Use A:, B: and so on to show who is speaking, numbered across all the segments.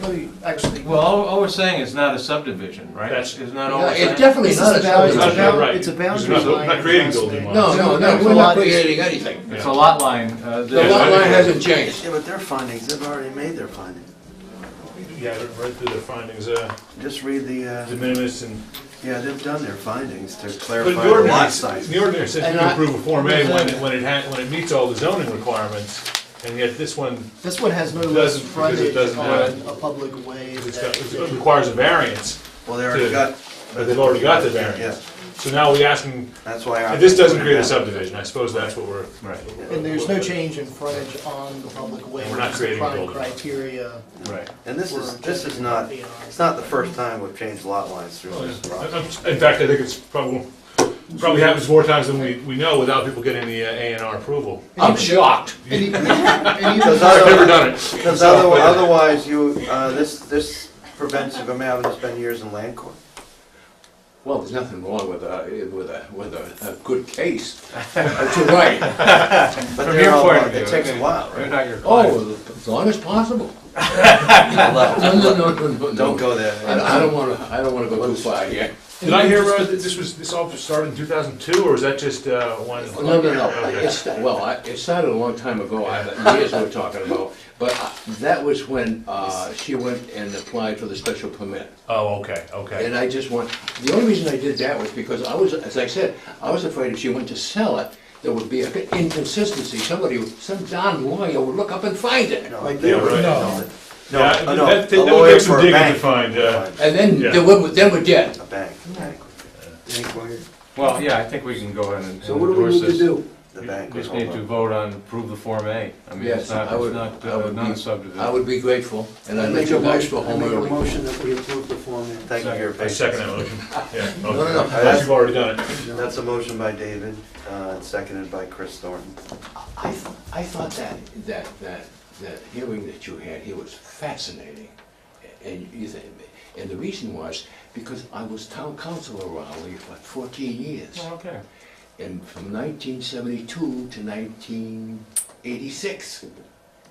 A: really, actually.
B: Well, all, all we're saying is not a subdivision, right?
C: That's-
B: It's not all
A: Yeah,
B: we're saying.
A: It's definitely
D: This
A: not
D: is
A: a boundary, it's a
C: about-
A: bound-
C: Right.
A: it's a
C: Because
A: boundary
C: we're not-
A: line.
C: we're not creating
A: across
C: building
A: there.
C: lines.
D: No, no, no,
A: It's a
D: we're
A: lot-
D: not creating anything.
B: It's a lot line. uh,
D: The
B: that-
D: lot line hasn't changed.
E: Yeah, but their findings, they've already made their findings.
C: Yeah, I read through the findings, uh,
E: Just read the,
C: de
E: uh,
C: minimis and.
E: yeah, they've done their findings to
C: But
E: clarify
C: the
E: the lot
C: ordinance,
E: size.
C: the ordinance says you
A: And
C: can
A: I-
C: approve a Form A when it, when it ha when it meets all the zoning requirements, and yet this one,
A: This one has no
C: Doesn't- because it
A: frontage
C: doesn't
A: on
C: have-
A: a public way.
C: it's
A: that-
C: got- it requires a variance,
E: Well, they already got,
C: but they've already got the variance.
E: yes,
C: So now we ask them,
E: that's why. I-
C: if this doesn't create a subdivision, I suppose that's what we're.
B: Right.
A: And there's no change in frontage on the public way.
C: We're not
A: which is the
C: creating a
A: prime
C: building.
A: Criteria.
B: Right.
E: And this is, this is not, it's not the first time we've changed lot lines
C: Oh,
E: through this process.
C: In fact, I think it's probably, probably happens more times than we, we know without people getting the uh, A and R approval.
D: I'm shocked.
A: And even- and even-
E: Because
C: I've never
E: otherwise-
C: done it.
E: Because other- otherwise, you, uh, this, this prevents you from having to spend years in land court.
D: Well, there's nothing wrong with a, with a, with a, a good case. uh, That's all right.
E: But
B: From
E: they're
B: your
E: all-
B: point of view,
E: It takes a while,
B: They're
E: right?
B: not your client.
D: Oh, as long as possible. No, no,
E: Don't
D: no, no, no.
E: go
D: I don't-
E: there.
D: I don't wanna, I don't wanna go too far here.
C: Did I hear, uh, that this was, this all started in two thousand two, or is that just, uh, one?
D: No, no, no,
C: Okay.
D: it's, well, I- it started a long time ago, I- years we're talking about, but uh, that was when uh, she went and applied for the special permit.
C: Oh, okay, okay.
D: And I just want, the only reason I did that was because I was, as I said, I was afraid if she went to sell it, there would be an inconsistency, somebody, some darn lawyer would look up and find it.
E: No,
A: Like
E: they
C: Yeah,
E: were-
C: right.
E: no, no,
C: Yeah,
E: no,
C: that-
E: a
C: that would
E: lawyer
C: take some
E: for a
C: digging to
E: bank.
C: find, uh,
D: And then,
C: Yeah.
D: then we're, then we're dead.
E: A bank, a bank. Any query?
B: Well, yeah, I think we can go ahead and and endorse this.
D: So what do we need to do?
E: The
B: We
E: bank was
B: Just
E: all
B: need to
E: done.
B: vote on, approve the Form A. I mean,
D: Yes,
B: it's not,
D: I would-
B: it's not,
D: I
B: uh,
D: would be-
B: not a
D: I
B: subdivision.
D: would be grateful, and I'd let
A: Make a
D: you guys
A: motion,
D: go
A: I
D: home
A: make a
D: early.
A: motion that we approve the Form A.
E: Thank you for your
C: I
E: patience.
C: second that motion. Yeah,
D: no, no.
C: okay. Unless you've already done it.
E: That's a motion by David, uh, and seconded by Chris Thornton.
D: I, th- I thought that, that, that, that hearing that you had here was fascinating. And you think, and the reason was because I was town council around Raleigh for fourteen years.
B: Well, Oh, Okay.
D: And from nineteen seventy-two to nineteen eighty-six.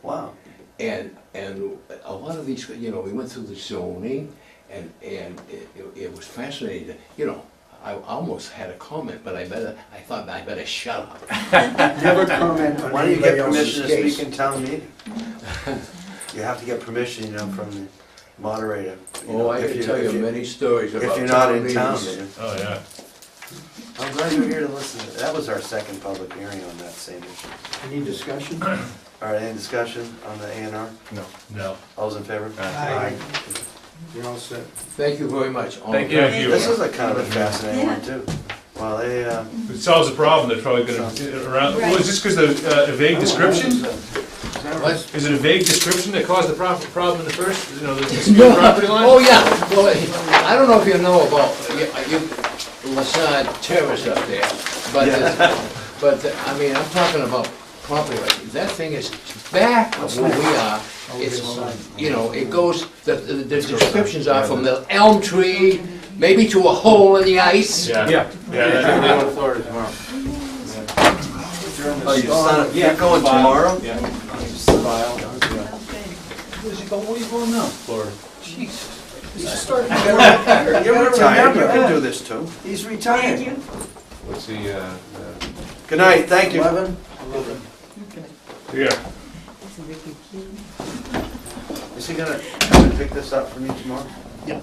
E: Wow.
D: And, and a lot of these, you know, we went through the zoning and, and it, it- it was fascinating, you know. I almost had a comment, but I better, I thought I better shut up.
A: Never comment
E: Why don't you get permission to
D: case.
E: speak in town meeting? You have to get permission, you know, from the moderator. you know,
D: Oh, I
E: if
D: can
E: you-
D: tell
E: if
D: you many stories about.
E: If you're not
D: town
E: in town,
D: meetings.
E: man.
C: Oh, yeah.
E: I'm glad you're here to listen. to- That was our second public hearing on that same issue.
A: Any discussion?
E: All right, any discussion on the A and R?
B: No.
C: No.
E: All's in favor?
A: Aye. You're all set.
D: Thank you very much. All
B: Thank
D: the
B: you.
D: best.
C: Thank
E: This is a kind of a fascinating one, too. Well, they, uh,
C: If it solves a problem, they're probably gonna, around, well, is this because the, uh, vague description?
D: What?
C: Is it a vague description that caused the prob- problem in the first, you know, the dispute property line?
D: Oh, yeah, well, I don't know if you know about, you, you, Lassard Terrace up there, but, it's- but, I mean, I'm talking about property, like, that thing is back of where we are.
C: Oh,
D: It's, you know, it goes, the, the the descriptions are from the elm tree, maybe to a hole in the ice.
C: Yeah.
B: Yeah.
C: Yeah, that-
B: I'm going to Florida tomorrow.
E: Oh, you son of- you're going tomorrow?
B: Yeah.
E: You're retired, you can do this too.
A: He's retired.
B: What's the, uh,
E: Good night, thank you.
C: Yeah.
E: Is he gonna come and pick this up for me tomorrow?
A: Yeah.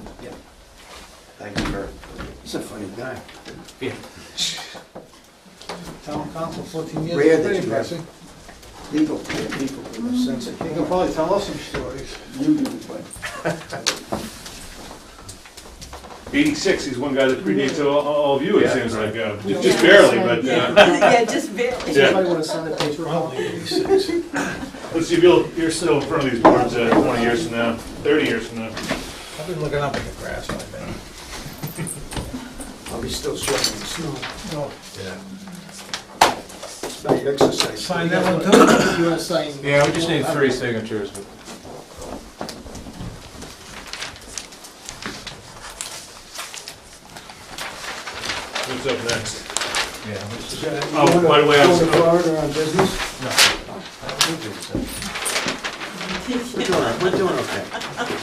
E: Thank you for,
A: He's a funny guy.
B: Yeah.
A: Town council, fourteen years.
F: Rare that
A: Pretty
F: you have
A: impressive. People, yeah, people, in
C: Mm-hmm.
A: a sense. He can probably tell us some stories.
C: Eighty-six is one guy that predates all, all of you, it seems like, uh, just- just
G: Yeah.
C: barely, but, uh,
G: Yeah, just barely.
C: Yeah.
A: Somebody wanna sign a paper?
C: let's see, Bill, you're still in front of these boards, uh, twenty years from now, thirty years from now.
F: I've been looking up at the grass, I think.
A: I'll be still sweating the snow.
F: No,
A: It's not exercise.
F: Sign that one too?
A: You wanna sign?
B: yeah, we just need three signatures. but-
C: What's up next?
B: Yeah. let's just-
C: Oh, by the way, I was-
A: Going to Florida on business?
E: we're doing, we're doing okay.